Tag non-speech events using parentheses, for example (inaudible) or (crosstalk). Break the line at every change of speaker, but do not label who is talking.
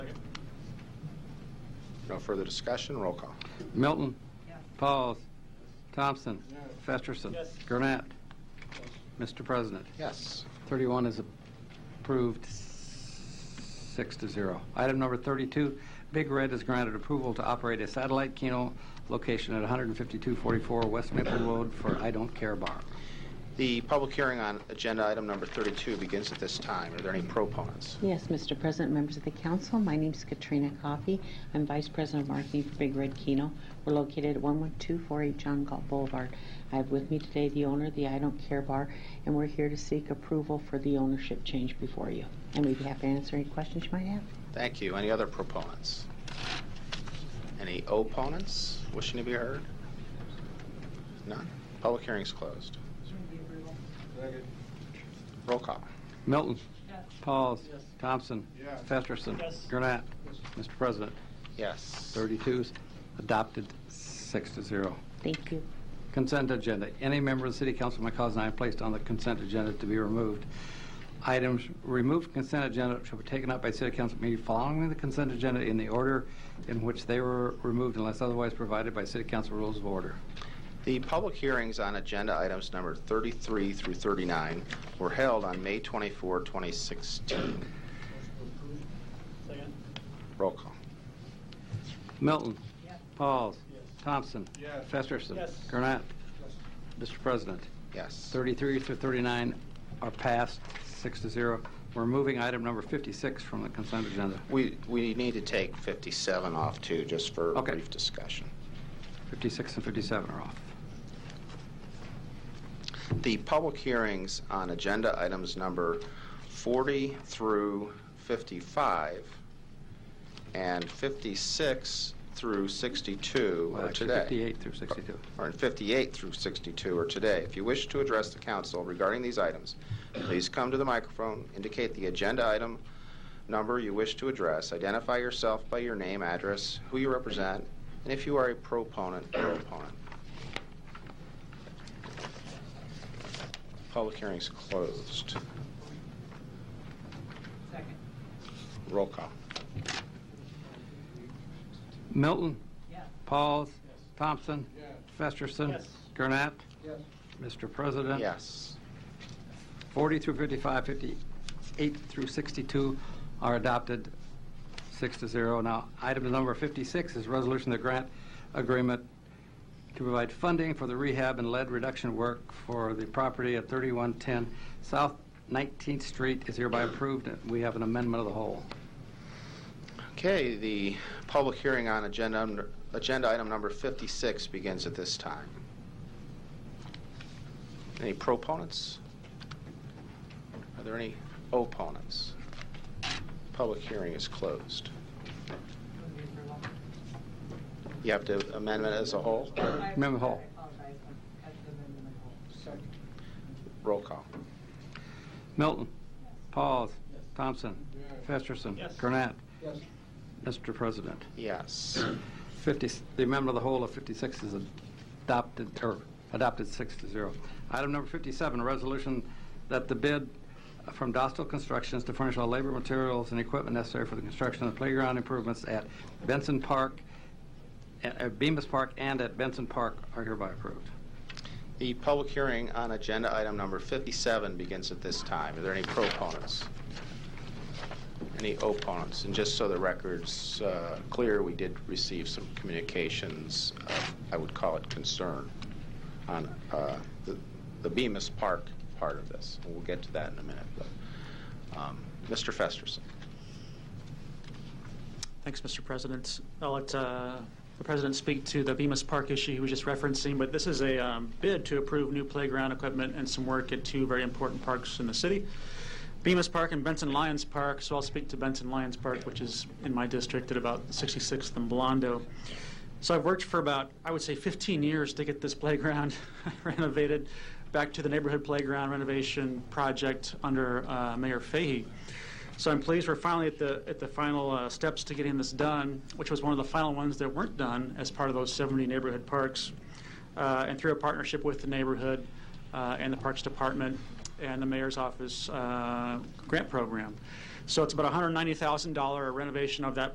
No further discussion. Roll call.
Milton. Pauls. Thompson. Festerson. Gurnett. Mr. President,
Yes.
31 is approved, six to zero. Item number 32, Big Red is granted approval to operate a satellite Keno location at 15244 West Maple Road for I Don't Care Bar.
The public hearing on agenda item number 32 begins at this time. Are there any proponents?
Yes, Mr. President, members of the council, my name's Katrina Coffey. I'm Vice President of Marketing for Big Red Keno. We're located at 11248 John Galt Boulevard. I have with me today the owner of the I Don't Care Bar, and we're here to seek approval for the ownership change before you. And we'd be happy to answer any questions you might have.
Thank you. Any other proponents? Any opponents wishing to be heard? None. Public hearing is closed. Roll call.
Milton. Pauls. Thompson. Festerson. Gurnett. Mr. President,
Yes.
32 is adopted, six to zero.
Thank you.
Consent agenda. Any member of the city council may cause an item placed on the consent agenda to be removed. Items removed from consent agenda shall be taken up by city council meeting following the consent agenda in the order in which they were removed unless otherwise provided by city council rules of order.
The public hearings on agenda items number 33 through 39 were held on May 24, 2016.
Second.
Roll call.
Milton. Pauls. Thompson.
Yes.
Festerson.
Yes.
Gurnett. Mr. President,
Yes.
33 through 39 are passed, six to zero. We're moving item number 56 from the consent agenda.
We, we need to take 57 off too, just for
Okay.
brief discussion.
56 and 57 are off.
The public hearings on agenda items number 40 through 55 and 56 through 62
Well,
are
actually,
today.
58 through 62.
Or in 58 through 62 are today. If you wish to address the council regarding these items, please come to the microphone, indicate the agenda item number you wish to address, identify yourself by your name, address, who you represent, and if you are a proponent or opponent. Public hearing's closed.
Second.
Roll call.
Milton.
Yes.
Pauls. Thompson. Festerson.
Yes.
Gurnett.
Yes.
Mr. President.
Yes.
40 through 55, 58 through 62 are adopted, six to zero. Now, item number 56 is resolution to grant agreement to provide funding for the rehab and lead reduction work for the property at 3110 South 19th Street is hereby approved. and We have an amendment of the whole.
Okay, the public hearing on agenda, agenda item number 56 begins at this time. Any proponents? Are there any opponents? Public hearing is closed. You have to amendment as a whole?
Member Hall.
Roll call.
Milton. Pauls. Thompson. Festerson.
Yes.
Gurnett.
Yes.
Mr. President.
Yes.
50, the amendment of the whole of 56 is adopted, or adopted six to zero. Item number 57, a resolution that the bid from Dostal Constructions to furnish all labor, materials, and equipment necessary for the construction of playground improvements at Benson Park, at at Bemis Park, and at Benson Park are hereby approved.
The public hearing on agenda item number 57 begins at this time. Are there any proponents? Any opponents? And just so the record's uh, clear, we did receive some communications, uh, I would call it concern, on uh, the- the Bemis Park part of this. We'll get to that in a minute. but, um, Mr. Festerson?
Thanks, Mr. President. I'll let uh, the president speak to the Bemis Park issue he was just referencing, but this is a um, bid to approve new playground equipment and some work at two very important parks in the city, Bemis Park and Benson Lyons Park. So I'll speak to Benson Lyons Park, which is in my district at about 66th and Blondo. So I've worked for about, I would say, 15 years to get this (laughs) playground renovated back to the neighborhood playground renovation project under uh, Mayor Fahey. So I'm pleased we're finally at the, at the final uh, steps to getting this done, which was one of the final ones that weren't done as part of those 70 neighborhood parks. Uh, And through a partnership with the neighborhood uh, and the Parks Department and the Mayor's Office uh, grant program. So it's about $190,000 renovation of that